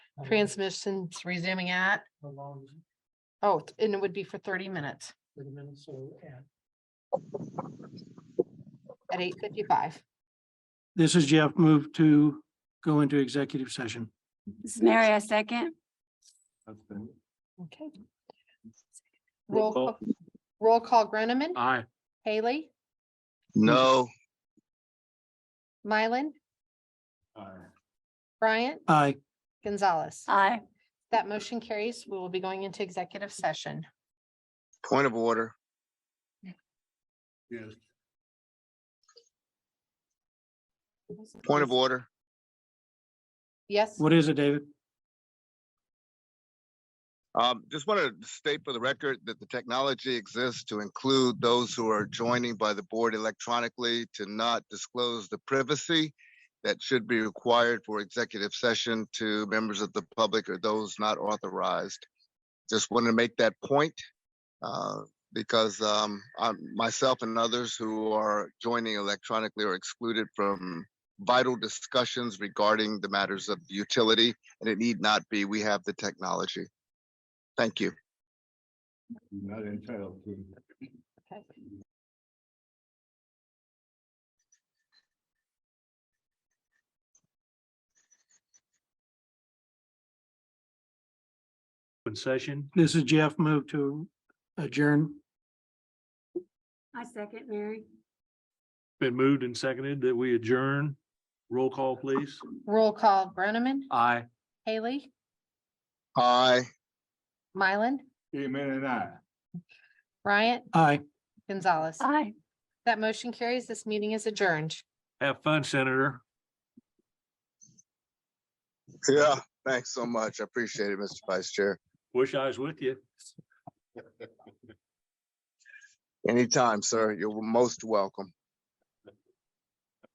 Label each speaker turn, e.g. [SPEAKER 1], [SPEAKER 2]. [SPEAKER 1] Transmission's resuming at,
[SPEAKER 2] How long is it?
[SPEAKER 1] oh, and it would be for thirty minutes
[SPEAKER 2] Thirty minutes, so, and.
[SPEAKER 1] at eight fifty-five.
[SPEAKER 2] This is Jeff, move to go into executive session.
[SPEAKER 3] This is Mary, I second.
[SPEAKER 1] Okay.
[SPEAKER 4] Roll
[SPEAKER 1] Roll, call- roll call Groneman,
[SPEAKER 2] Aye.
[SPEAKER 1] Haley,
[SPEAKER 4] No.
[SPEAKER 1] Mylan,
[SPEAKER 5] Uh,
[SPEAKER 1] Bryant,
[SPEAKER 2] Aye.
[SPEAKER 1] Gonzalez.
[SPEAKER 4] Uh.
[SPEAKER 3] Aye.
[SPEAKER 1] That motion carries. We will be going into executive session.
[SPEAKER 4] Point of order.
[SPEAKER 5] Yes.
[SPEAKER 4] Point of order.
[SPEAKER 1] Yes,
[SPEAKER 2] What is it, David?
[SPEAKER 4] Um, just want to state for the record that the technology exists to include those who are joining by the board electronically to not disclose the privacy that should be required for executive session to members of the public or those not authorized. Just want to make that point uh, because um, I'm, myself and others who are joining electronically are excluded from vital discussions regarding the matters of utility, and it need not be. We have the technology. Thank you.
[SPEAKER 5] You're Not entitled to.
[SPEAKER 1] Okay.
[SPEAKER 6] open session.
[SPEAKER 2] This is Jeff, move to adjourn.
[SPEAKER 3] I second, Mary.
[SPEAKER 6] Been moved and seconded that we adjourn. Roll call, please.
[SPEAKER 1] roll call Groneman,
[SPEAKER 6] Aye.
[SPEAKER 1] Haley,
[SPEAKER 4] Aye.
[SPEAKER 1] Mylan,
[SPEAKER 5] Amen and I.
[SPEAKER 1] Bryant,
[SPEAKER 2] Aye.
[SPEAKER 1] Gonzalez.
[SPEAKER 4] Uh.
[SPEAKER 3] Aye.
[SPEAKER 1] That motion carries. This meeting is adjourned.
[SPEAKER 6] Have fun, Senator.
[SPEAKER 4] Yeah, thanks so much. I appreciate it, Mr. Vice Chair.
[SPEAKER 6] Wish I was with you.
[SPEAKER 4] Anytime, sir. You're most welcome.